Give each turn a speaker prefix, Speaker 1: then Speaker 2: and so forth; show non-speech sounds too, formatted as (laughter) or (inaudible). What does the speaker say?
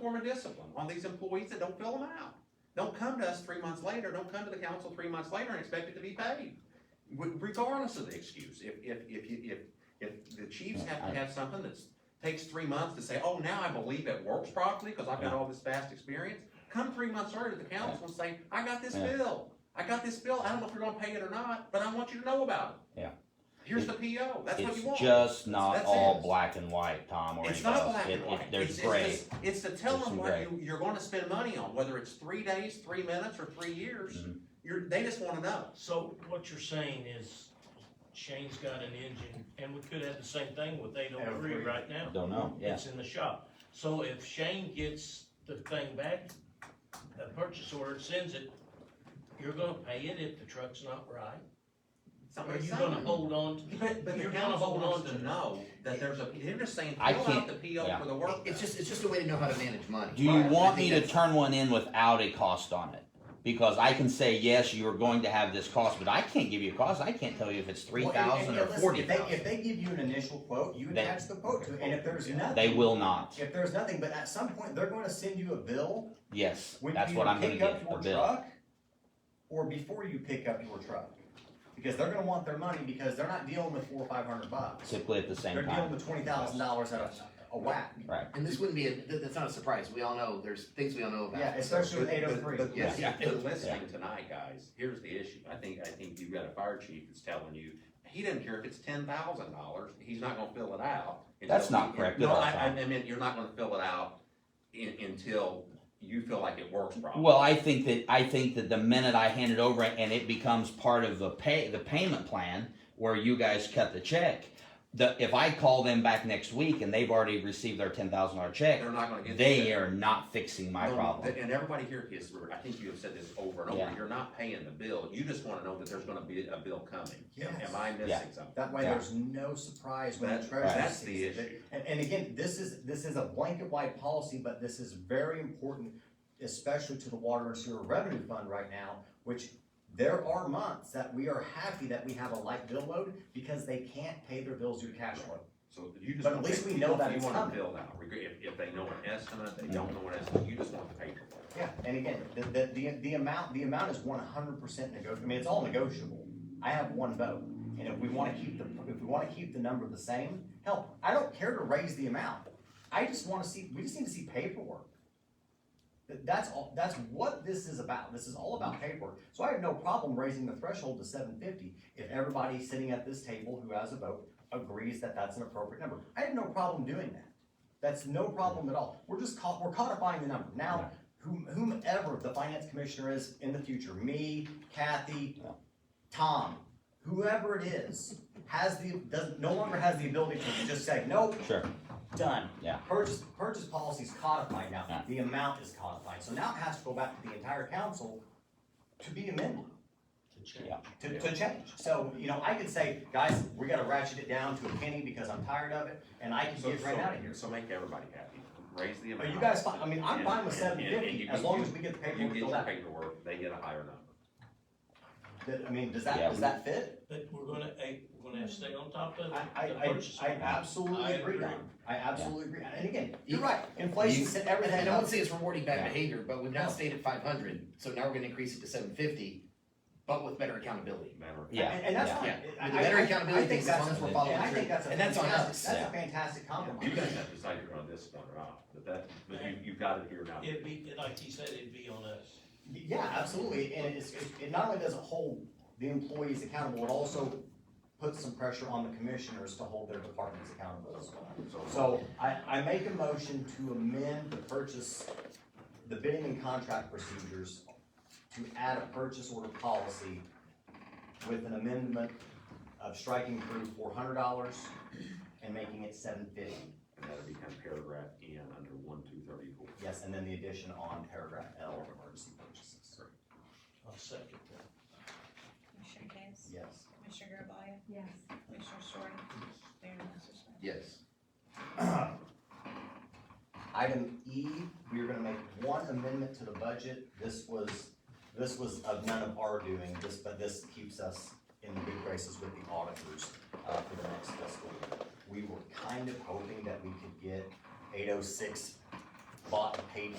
Speaker 1: form of discipline on these employees that don't fill them out. Don't come to us three months later, don't come to the council three months later and expect it to be paid, re- regardless of the excuse. If, if, if, you- if, if the chiefs have to have something that's, takes three months to say, oh, now I believe it works properly, cause I've got all this vast experience, come three months earlier to the council and say, I got this
Speaker 2: Yeah.
Speaker 1: bill, I got this bill, I don't know if you're gonna pay it or not, but I want you to know about it.
Speaker 2: Yeah.
Speaker 1: Here's the PO, that's what you
Speaker 2: It's
Speaker 1: want.
Speaker 2: just not
Speaker 1: That's
Speaker 2: all
Speaker 1: it.
Speaker 2: black and white, Tom, or
Speaker 1: It's
Speaker 2: anything
Speaker 1: not
Speaker 2: else.
Speaker 1: black
Speaker 2: It-
Speaker 1: and
Speaker 2: it-
Speaker 1: white.
Speaker 2: There's
Speaker 1: It's-
Speaker 2: gray.
Speaker 1: It's, just- it's to tell
Speaker 2: There's
Speaker 1: them
Speaker 2: some
Speaker 1: what
Speaker 2: gray.
Speaker 1: you, you're gonna spend money on, whether it's three days, three minutes, or three years.
Speaker 2: Mhm.
Speaker 1: You're, they just wanna know.
Speaker 3: So what you're saying is Shane's got an engine, and we could have the same thing with eight oh three
Speaker 1: Every-
Speaker 3: right now.
Speaker 2: Don't know, yeah.
Speaker 3: It's in the shop. So if Shane gets the thing back, the purchase order and sends it, you're gonna pay it if the truck's not right? Or
Speaker 1: Somebody's
Speaker 3: you gonna
Speaker 1: saying.
Speaker 3: hold on? to-
Speaker 1: (laughs) But, but the
Speaker 3: you're gonna
Speaker 1: council
Speaker 3: hold on
Speaker 1: wants
Speaker 3: to-
Speaker 1: to know that there's a, they're just saying,
Speaker 2: I
Speaker 1: fill out
Speaker 2: can't-
Speaker 1: the PO
Speaker 2: yeah.
Speaker 1: for the work.
Speaker 4: It's
Speaker 1: done.
Speaker 4: just, it's just a way to know how to manage money.
Speaker 2: Do you
Speaker 1: Right,
Speaker 2: want me to turn one in without a cost on it? Because I can say, yes, you are going to have this cost, but I can't give you a cost. I can't tell you if it's three
Speaker 5: Well, and-
Speaker 2: thousand
Speaker 5: and-
Speaker 2: or
Speaker 5: and listen,
Speaker 2: forty
Speaker 5: if they- If
Speaker 2: thousand.
Speaker 5: they give you an initial quote, you
Speaker 2: They-
Speaker 5: attach the quote to it, and if there's nothing.
Speaker 2: They will not.
Speaker 5: If there's nothing, but at some point, they're gonna send you a bill
Speaker 2: Yes,
Speaker 5: when
Speaker 2: that's
Speaker 5: you
Speaker 2: what I'm gonna
Speaker 5: pick up
Speaker 2: get, the
Speaker 5: your
Speaker 2: bill.
Speaker 5: truck, or before you pick up your truck. Because they're gonna want their money, because they're not dealing with four or five hundred bucks.
Speaker 2: Typically at the
Speaker 5: They're
Speaker 2: same
Speaker 5: dealing
Speaker 2: time,
Speaker 5: with twenty thousand dollars at a, a whack.
Speaker 2: right?
Speaker 4: And this wouldn't be, a th- that's not a surprise, we all know, there's things we all know about.
Speaker 5: Yeah, especially with eight oh three.
Speaker 1: But
Speaker 4: Yeah.
Speaker 1: listen, but listening tonight, guys, here's the issue. I think, I think you've got a fire chief that's telling you, he doesn't care if it's ten thousand dollars, he's not gonna fill it out. until
Speaker 2: That's not
Speaker 1: he-
Speaker 2: correct at
Speaker 1: No,
Speaker 2: all,
Speaker 1: I, I
Speaker 2: Tom.
Speaker 1: I mean, you're not gonna fill it out in, until you feel like it works properly.
Speaker 2: Well, I think that, I think that the minute I hand it over and it becomes part of the pay, the payment plan where you guys cut the check, the, if I call them back next week and they've already received their ten thousand dollar check,
Speaker 1: They're not gonna get.
Speaker 2: they are not fixing my
Speaker 1: No,
Speaker 2: problem.
Speaker 1: And everybody here is, I think you have said this over and over,
Speaker 2: Yeah.
Speaker 1: you're not paying the bill, you just wanna know that there's gonna be a bill coming.
Speaker 5: Yes.
Speaker 1: Am I
Speaker 2: Yeah.
Speaker 1: missing something?
Speaker 5: That way,
Speaker 2: Yeah.
Speaker 5: there's no surprise when the
Speaker 1: That-
Speaker 5: treasurer
Speaker 1: that's the
Speaker 5: sees it.
Speaker 1: issue.
Speaker 5: And, and again, this is, this is a blanket wide policy, but this is very important, especially to the water and sewer revenue fund right now, which there are months that we are happy that we have a light bill load because they can't pay their bills due to cash flow.
Speaker 1: So you just.
Speaker 5: But at
Speaker 1: wanna
Speaker 5: least
Speaker 1: pay-
Speaker 5: we know
Speaker 1: you
Speaker 5: that it's
Speaker 1: wanna
Speaker 5: coming. Mm-hmm.
Speaker 1: Bill out, Reg- if, if they know an estimate, they don't know an estimate, you just want the paperwork.
Speaker 5: Yeah, and again, the, the, the, the amount, the amount is one hundred percent negotiable, I mean, it's all negotiable. I have one vote, and if we wanna keep the, if we wanna keep the number the same, hell, I don't care to raise the amount. I just wanna see, we just need to see paperwork. Th- That's all, that's what this is about, this is all about paperwork, so I have no problem raising the threshold to seven fifty if everybody sitting at this table who has a vote agrees that that's an appropriate number. I have no problem doing that, that's no problem at all, we're just caught, we're codifying the number. Now, whom- whomever the finance commissioner is in the future, me, Kathy, Tom, whoever it is, has the, does, no longer has the ability to just say, nope,
Speaker 2: Sure,
Speaker 5: done.
Speaker 2: Yeah.
Speaker 5: Purchase, purchase policy is codified
Speaker 2: Yeah.
Speaker 5: now, the amount is codified, so now it has to go back to the entire council to be amended,
Speaker 3: to change?
Speaker 2: Yeah.
Speaker 5: to, to change. So, you know, I could say, guys, we gotta ratchet it down to a penny because I'm tired of it, and I can
Speaker 1: So,
Speaker 5: get right
Speaker 1: so-
Speaker 5: out of here.
Speaker 1: So make everybody happy, raise the
Speaker 5: But
Speaker 1: amount.
Speaker 5: you guys, fi- I mean, I'm
Speaker 1: And-
Speaker 5: fine with
Speaker 1: and- and-
Speaker 5: seven
Speaker 1: and
Speaker 5: fifty,
Speaker 1: you-
Speaker 5: as long
Speaker 1: you-
Speaker 5: as we get the
Speaker 1: You
Speaker 5: paperwork
Speaker 1: get
Speaker 5: filled
Speaker 1: your
Speaker 5: out.
Speaker 1: paperwork, they get a higher number.
Speaker 5: That- I mean, does that,
Speaker 2: Yeah,
Speaker 5: does
Speaker 2: we-
Speaker 5: that fit?
Speaker 3: But we're gonna, eh, we're gonna stay on top of
Speaker 5: I,
Speaker 3: the
Speaker 5: I, I,
Speaker 3: purchase
Speaker 5: I
Speaker 3: order. I
Speaker 5: absolutely agree,
Speaker 3: agree.
Speaker 5: Don. I absolutely agree, and again, you're
Speaker 4: You-
Speaker 5: right, inflation
Speaker 2: you-
Speaker 5: sent
Speaker 4: E, And I
Speaker 5: everything
Speaker 4: don't
Speaker 5: up.
Speaker 4: say it's rewarding
Speaker 2: Yeah.
Speaker 4: bad behavior, but we've now
Speaker 5: No.
Speaker 4: stayed at five hundred, so now we're gonna increase it to seven fifty, but with better accountability.
Speaker 1: Matter-
Speaker 2: Yeah.
Speaker 5: And, and that's
Speaker 2: yeah.
Speaker 5: fine.
Speaker 4: Yeah.
Speaker 5: I-
Speaker 4: With better
Speaker 5: I- I
Speaker 4: accountability
Speaker 5: think
Speaker 4: things, as
Speaker 5: that's
Speaker 4: long as we're
Speaker 5: a-
Speaker 4: following
Speaker 5: and I
Speaker 4: through.
Speaker 5: think that's a
Speaker 4: And that's on
Speaker 5: fantastic-
Speaker 4: us.
Speaker 5: That's
Speaker 2: Yeah.
Speaker 5: a fantastic
Speaker 1: You
Speaker 5: compromise.
Speaker 1: guys have to decide you're on this one or not, but that, but you, you've got it here now.
Speaker 3: It'd be, like he said, it'd be on us.
Speaker 5: Yeah, absolutely, and it's, it- it not only doesn't hold the employees accountable, it also puts some pressure on the commissioners to hold their departments accountable as well. So I, I make a motion to amend the purchase, the bidding and contract procedures to add a purchase order policy with an amendment of striking through four hundred dollars and making it seven fifty.
Speaker 1: And that'll become paragraph N under one, two, thirty-four.
Speaker 5: Yes, and then the addition on paragraph L of emergency purchases.
Speaker 3: I'll second that.
Speaker 6: Commissioner Case?
Speaker 5: Yes.
Speaker 6: Commissioner Garvelia?
Speaker 7: Yes.
Speaker 6: Commissioner Story? Mayor Masser Smith?
Speaker 4: Yes.
Speaker 5: Item E, we are gonna make one amendment to the budget. This was, this was of none of our doing, this, but this keeps us in good graces with the auditors, uh, for the next fiscal year. We were kind of hoping that we could get eight oh six bought and paid